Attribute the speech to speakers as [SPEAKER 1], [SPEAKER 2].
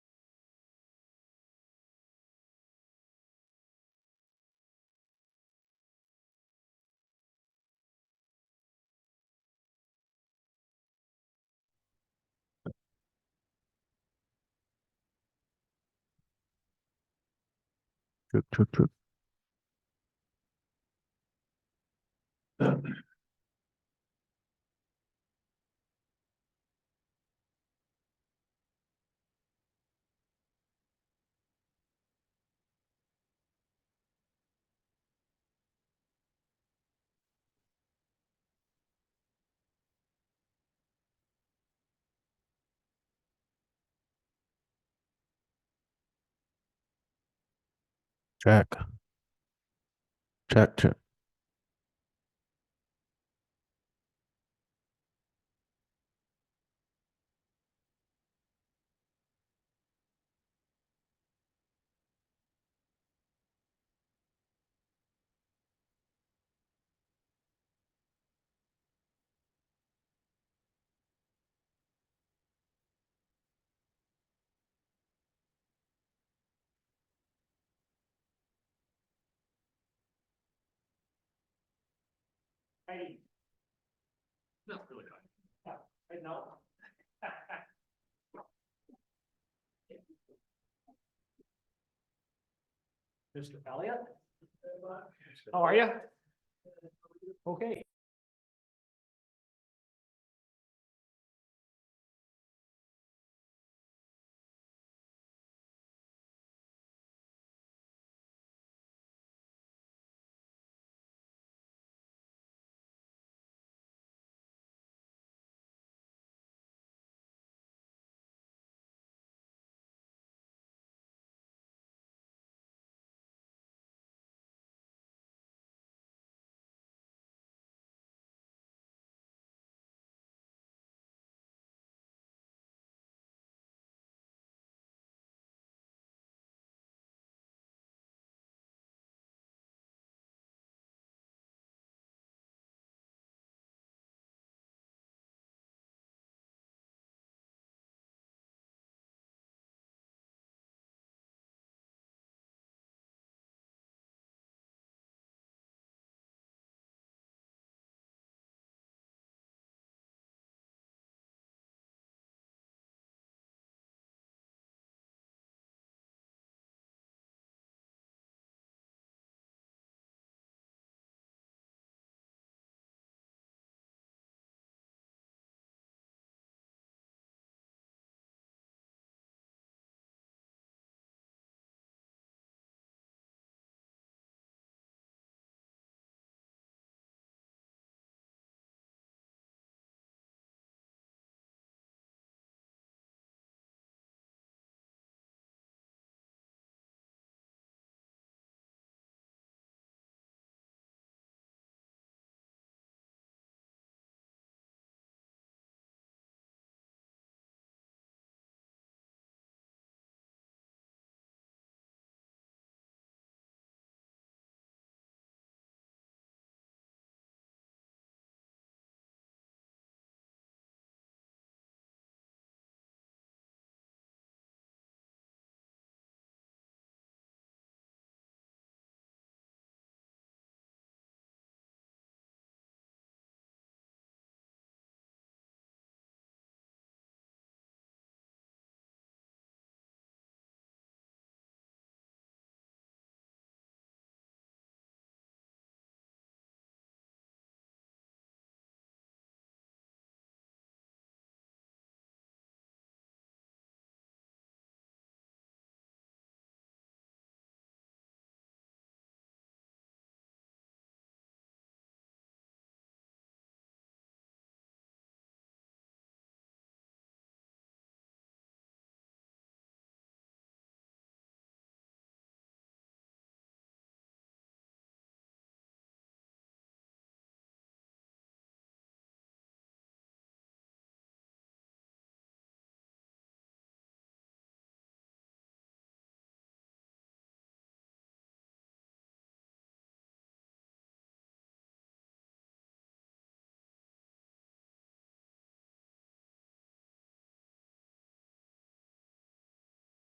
[SPEAKER 1] Good, good, good. Check. Check, check.
[SPEAKER 2] I. Not really. I know. Mr. Elliott? How are you? Okay.